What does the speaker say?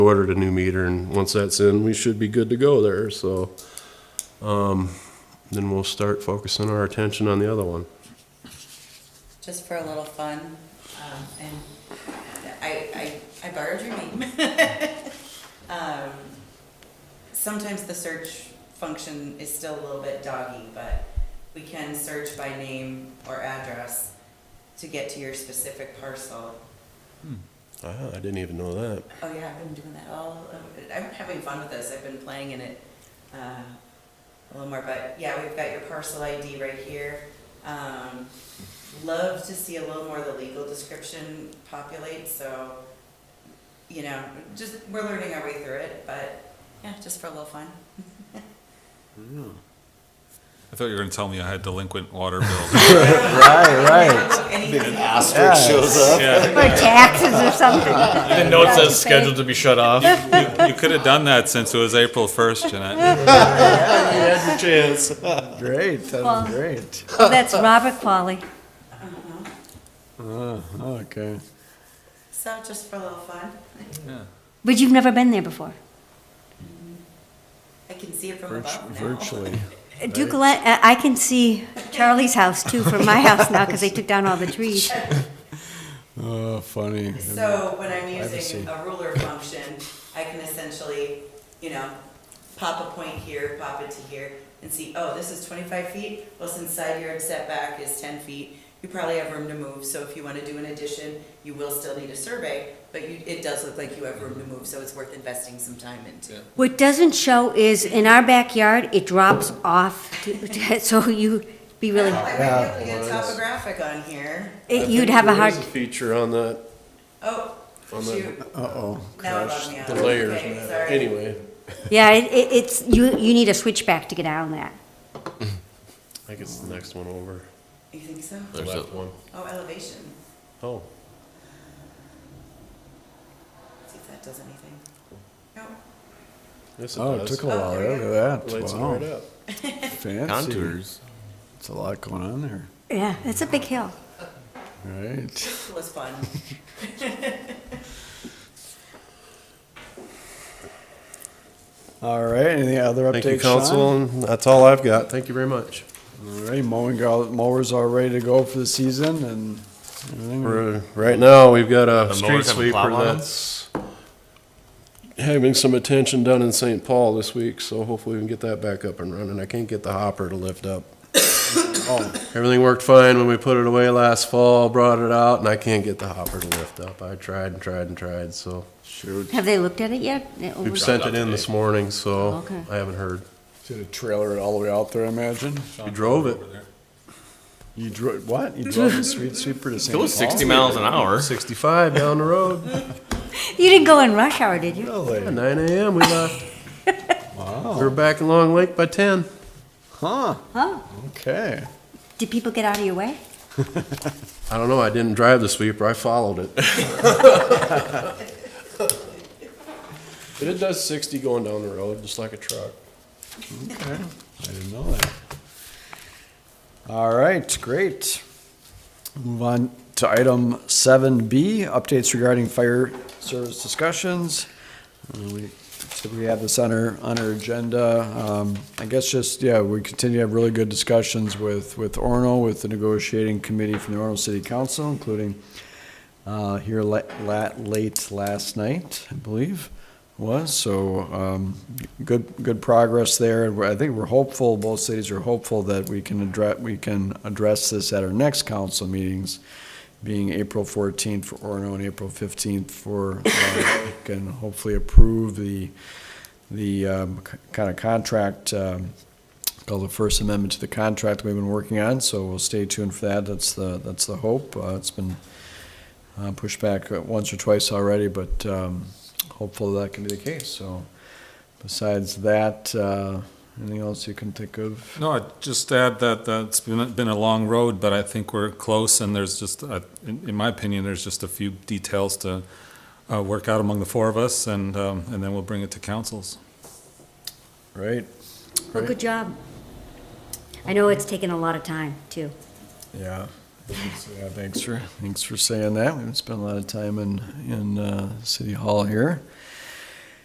ordered a new meter, and once that's in, we should be good to go there, so, um, then we'll start focusing our attention on the other one. just for a little fun. Um, and I, I, I borrowed your name. um, sometimes the search function is still a little bit doggy, but we can search by name or address to get to your specific parcel. Ah, I didn't even know that. Oh yeah, I've been doing that all. of- I'm having fun with this. I've been playing in it uh, a little more, but yeah, we've got your parcel ID right here. Um, love to see a little more of the legal description populate, so you know, just we're learning our way through it, but yeah, just for a little fun. I thought you were going to tell me I had delinquent water bills. Right, right. Anything- Asterisk shows up. yeah, Or taxes or something. Didn't know it says scheduled to be shut off. You you, you could have done that since it was April 1st, Jeanette. had your chance. Great, that Well- was great. Well, That's Robert Qualley. Oh, okay. So just for a little fun, But you've never been there before. I can see it from Virtu- above now. Virtually. Duke Glen, uh, I I can see Charlie's house too from my house now because they took down all the trees. Oh, funny. So when I'm using Privacy. a ruler function, I can essentially, you know, pop a point here, pop it to here, and see, oh, this is twenty-five feet, well, since side yard setback is ten feet, you probably have room to move, so if you wanna do an addition, you will still need a survey, but you, it does look like you have room to move, so it's worth investing some time into. What doesn't show is in our backyard, it drops off. to- So you be really, Oh, I might be able to get a topographic on here. it- you'd have a hard, There's a feature on that, Oh, On the- shoot, Uh-oh. now it bugged me out. the layers, Okay, map. sorry. anyway, yeah, it- it- it's, you, you need a switchback to get out of that. I guess the next one over, You think so? the left one. Oh, elevation, Oh, see if that does anything. Oh, No, yes it Oh, it took does. a Oh, while. there we Look go. at that. Lights it right Wow. up. Fancy. contours. It's a lot going on there. Yeah, it's a big hill. Right. this was fun. All right. Any other updates, Thank you, Sean? council, and that's all I've got, thank you very much. All right. Mowing gal- mowers are ready to go for the season and everything. We're- Right now, we've got a The street mowers have a plow sweeper on 'em? that's having some attention done in St. Paul this week, so hopefully we can get that back up and running. I can't get the hopper to lift up. Oh, Everything worked fine when we put it away last fall, brought it out, and I can't get the hopper to lift up. I tried and tried and tried, so. Shoot. Have they looked at it yet? It We've was- sent it in this morning, so Okay. I haven't heard. Did a trailer it all the way out there, I imagine. You drove it You drove, what? You drove the street sweeper to St. It Paul? was 60 miles an hour. sixty-five down the road, You didn't go in rush hour, did you? Really? nine AM we left. We were Wow. back in Long Lake by ten. Huh. Huh? Okay. Did people get out of your way? I don't know, I didn't drive the sweeper, I followed it. But it does sixty going down the road, just like a truck. Okay, I didn't know that. All right, great. Move on to item seven B, updates regarding fire service discussions. Uh, We typically have this on our, on our agenda. Um, I guess just, yeah, we continue to have really good discussions with, with Orno, with the negotiating committee from the Orno City Council, including uh, here la- la- late last night, I believe was. So um, good good progress there. And we're- I think we're hopeful. Both cities are hopeful that we can address we can address this at our next council meetings, being April 14th for Orono and April 15th for uh, we can hopefully approve the the um, kind of contract. Um, called the First Amendment to the contract we've been working on, so we'll stay tuned for that. That's the that's the hope. Uh, it's been uh, pushed back uh, once or twice already, but um, hopeful that can be the case. So besides that, uh, anything else you can think of? No, I'd just add that uh, it's been, been a long road, but I think we're close, and there's just, uh, in, in my opinion, there's just a few details to uh, work out among the four of us, and, um, and then we'll bring it to councils. Right? Well, good job. I know it's taken a lot of time, too. Yeah. Yeah, thanks for, thanks for saying that. We've spent a lot of time in, in uh, City Hall here.